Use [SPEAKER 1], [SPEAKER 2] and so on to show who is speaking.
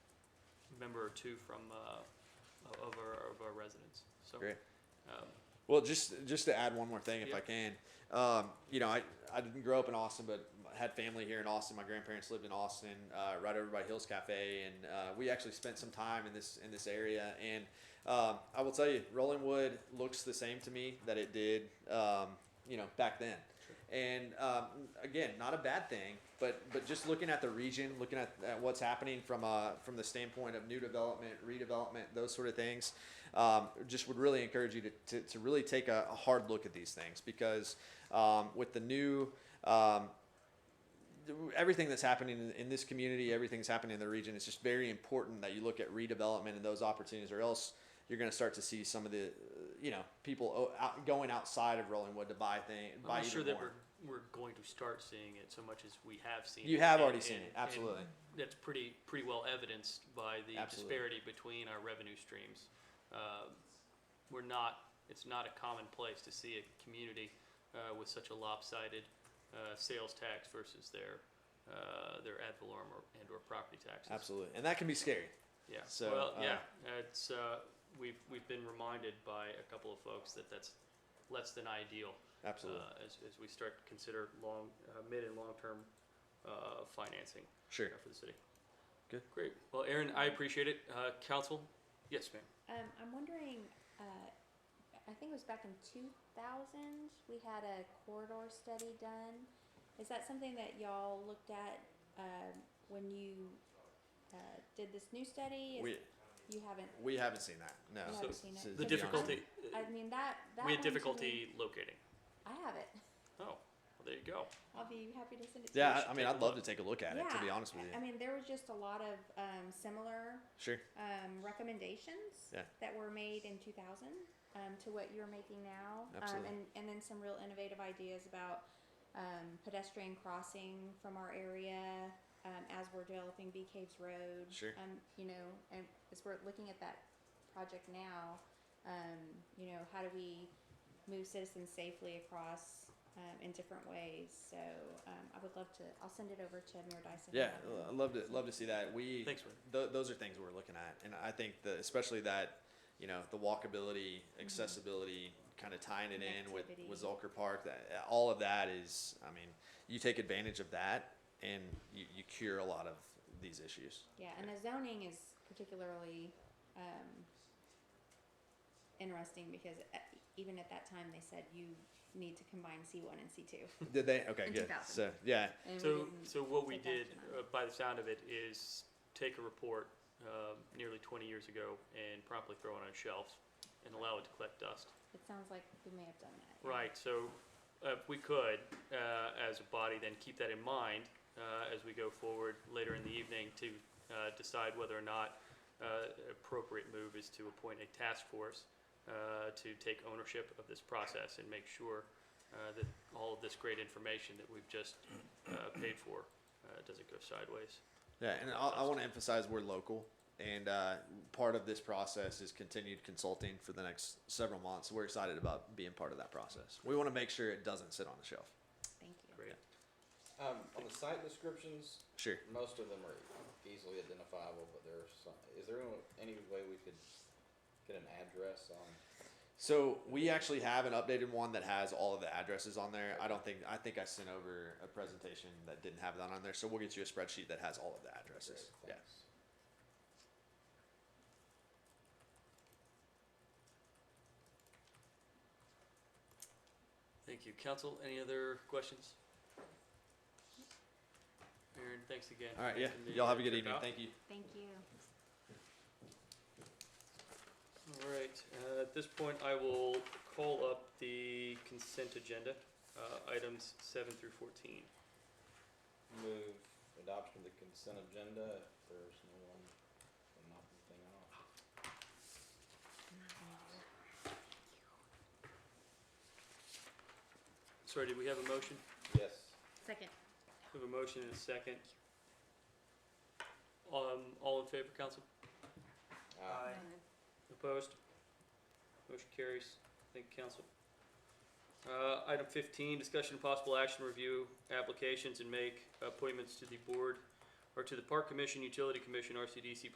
[SPEAKER 1] member or two from, uh, of- of our, of our residents, so.
[SPEAKER 2] Great.
[SPEAKER 1] um,
[SPEAKER 2] Well, just just to add one more thing, if I
[SPEAKER 1] Yep.
[SPEAKER 2] can, um, you know, I, I didn't grow up in Austin, but I had family here in Austin. My grandparents lived in Austin, uh, right over by Hills Cafe, and uh, we actually spent some time in this in this area. And um, I will tell you, Rolling Wood looks the same to me that it did, um, you know, back then. And um, again, not a bad thing, but but just looking at the region, looking at, at what's happening from uh, from the standpoint of new development, redevelopment, those sort of things, um, just would really encourage you to, to, to really take a, a hard look at these things because um, with the new um, everything that's happening in, in this community, everything that's happening in the region, it's just very important that you look at redevelopment and those opportunities, or else you're going to start to see some of the, uh, you know, people o- out, going outside of Rolling Wood to buy things,
[SPEAKER 1] I'm
[SPEAKER 2] buy
[SPEAKER 1] not sure
[SPEAKER 2] even
[SPEAKER 1] that
[SPEAKER 2] more.
[SPEAKER 1] we're, we're going to start seeing it so much as we have seen.
[SPEAKER 2] You
[SPEAKER 1] it,
[SPEAKER 2] have
[SPEAKER 1] and-
[SPEAKER 2] already seen
[SPEAKER 1] and-
[SPEAKER 2] it,
[SPEAKER 1] and
[SPEAKER 2] absolutely.
[SPEAKER 1] That's pretty, pretty well evidenced by the
[SPEAKER 2] Absolutely.
[SPEAKER 1] disparity between our revenue streams. Uh, We're not, it's not a common place to see a community uh, with such a lopsided uh, sales tax versus their, uh, their ad valorem or- and or property taxes.
[SPEAKER 2] Absolutely, and that can be scary.
[SPEAKER 1] Yeah.
[SPEAKER 2] So,
[SPEAKER 1] well,
[SPEAKER 2] uh,
[SPEAKER 1] yeah, it's uh, we've we've been reminded by a couple of folks that that's less than ideal
[SPEAKER 2] Absolutely,
[SPEAKER 1] uh, as as we start to consider long, uh, mid and long term uh, financing
[SPEAKER 2] sure.
[SPEAKER 1] for the city.
[SPEAKER 2] Good.
[SPEAKER 1] Great. Well, Aaron, I appreciate it. Uh, council, yes, ma'am.
[SPEAKER 3] Um, I'm wondering, uh, I think it was back in two thousand, we had a corridor study done. Is that something that y'all looked at, um, when you, uh, did this new study? Is-
[SPEAKER 2] We
[SPEAKER 3] You haven't,
[SPEAKER 2] we haven't seen that. No.
[SPEAKER 3] you
[SPEAKER 1] So-
[SPEAKER 3] haven't seen
[SPEAKER 2] so
[SPEAKER 3] it?
[SPEAKER 1] The
[SPEAKER 2] To
[SPEAKER 3] Because
[SPEAKER 2] be honest.
[SPEAKER 1] difficulty uh,
[SPEAKER 3] I mean, that, that
[SPEAKER 1] we
[SPEAKER 3] one
[SPEAKER 1] had
[SPEAKER 3] to me-
[SPEAKER 1] difficulty locating.
[SPEAKER 3] I have it.
[SPEAKER 1] Oh, well, there you go.
[SPEAKER 3] I'll be happy to send it to you.
[SPEAKER 2] Yeah,
[SPEAKER 1] should
[SPEAKER 2] I, I
[SPEAKER 1] take
[SPEAKER 2] mean,
[SPEAKER 1] a
[SPEAKER 2] I'd love
[SPEAKER 1] look.
[SPEAKER 2] to take a look at it. To be
[SPEAKER 3] Yeah,
[SPEAKER 2] honest with
[SPEAKER 3] I-
[SPEAKER 2] you,
[SPEAKER 3] I mean, there was just a lot of, um, similar
[SPEAKER 2] sure.
[SPEAKER 3] um, recommendations
[SPEAKER 2] Yeah.
[SPEAKER 3] that were made in 2000 um, to what you're making now, um,
[SPEAKER 2] Absolutely.
[SPEAKER 3] and and then some real innovative ideas about um, pedestrian crossing from our area um, as we're developing Bee Caves Road.
[SPEAKER 2] Sure.
[SPEAKER 3] Um, you know, and as we're looking at that project now, um, you know, how do we move citizens safely across? Um, in different ways, so um, I would love to. I'll send it over to Mayor Dyson.
[SPEAKER 2] Yeah, I'd love to love to see that. We
[SPEAKER 1] Thanks, man.
[SPEAKER 2] Th- those are things we're looking at, and I think that especially that you know the walkability, accessibility, kind of tying it in with with
[SPEAKER 3] Mm-hmm. Connectivity.
[SPEAKER 2] Zolker Park. That all of that is, I mean, you take advantage of that, and you, you cure a lot of these issues.
[SPEAKER 3] Yeah, and the zoning is particularly, um, interesting because at- even at that time, they said you need to combine C one and C two.
[SPEAKER 2] Did they? Okay,
[SPEAKER 3] In
[SPEAKER 2] good.
[SPEAKER 3] 2000.
[SPEAKER 2] So yeah,
[SPEAKER 1] So, so what we
[SPEAKER 3] take action
[SPEAKER 1] did,
[SPEAKER 3] on it.
[SPEAKER 1] uh, by the sound of it, is take a report um, nearly 20 years ago and promptly throw it on a shelf and allow it to collect dust.
[SPEAKER 3] It sounds like we may have done that.
[SPEAKER 1] Right, so uh, if we could, uh, as a body, then keep that in mind uh, as we go forward later in the evening to uh, decide whether or not uh, appropriate move is to appoint a task force uh, to take ownership of this process and make sure uh, that all of this great information that we've just uh, paid for uh, doesn't go sideways.
[SPEAKER 2] yeah, and I, I want to emphasize we're local. And uh, part of this process is continued consulting for the next several months. We're excited about being part of that process. We want to make sure it doesn't sit on the shelf.
[SPEAKER 3] Thank you.
[SPEAKER 1] Great.
[SPEAKER 4] Um, on the site descriptions,
[SPEAKER 2] Sure.
[SPEAKER 4] most of them are easily identifiable, but there are some, is there any way we could get an address on?
[SPEAKER 2] So we actually have an updated one that has all of the addresses on there. I don't think I think I sent over a presentation that didn't have that on there. So we'll get you a spreadsheet that has all of the addresses. Yeah.
[SPEAKER 4] Great, thanks.
[SPEAKER 1] Thank you. Council, any other questions? Aaron, thanks again.
[SPEAKER 2] All right.
[SPEAKER 1] for
[SPEAKER 2] Yeah.
[SPEAKER 1] taking the,
[SPEAKER 2] Y'all have a
[SPEAKER 1] uh,
[SPEAKER 2] good
[SPEAKER 1] trip
[SPEAKER 2] evening.
[SPEAKER 1] out.
[SPEAKER 2] Thank you.
[SPEAKER 3] Thank you.
[SPEAKER 1] All right, uh, at this point, I will call up the consent agenda, uh, items seven through fourteen.
[SPEAKER 4] Move adoption of the consent agenda, if there's no one, I'm not anything off.
[SPEAKER 1] Sorry, did we have a motion?
[SPEAKER 4] Yes,
[SPEAKER 3] Second.
[SPEAKER 1] We have a motion and a second. Um, all in favor, council?
[SPEAKER 4] uh,
[SPEAKER 1] Opposed? Motion carries. Thank you, council. Uh, item fifteen, discussion of possible action, review applications and make appointments to the board or to the Park Commission, Utility Commission, RCDC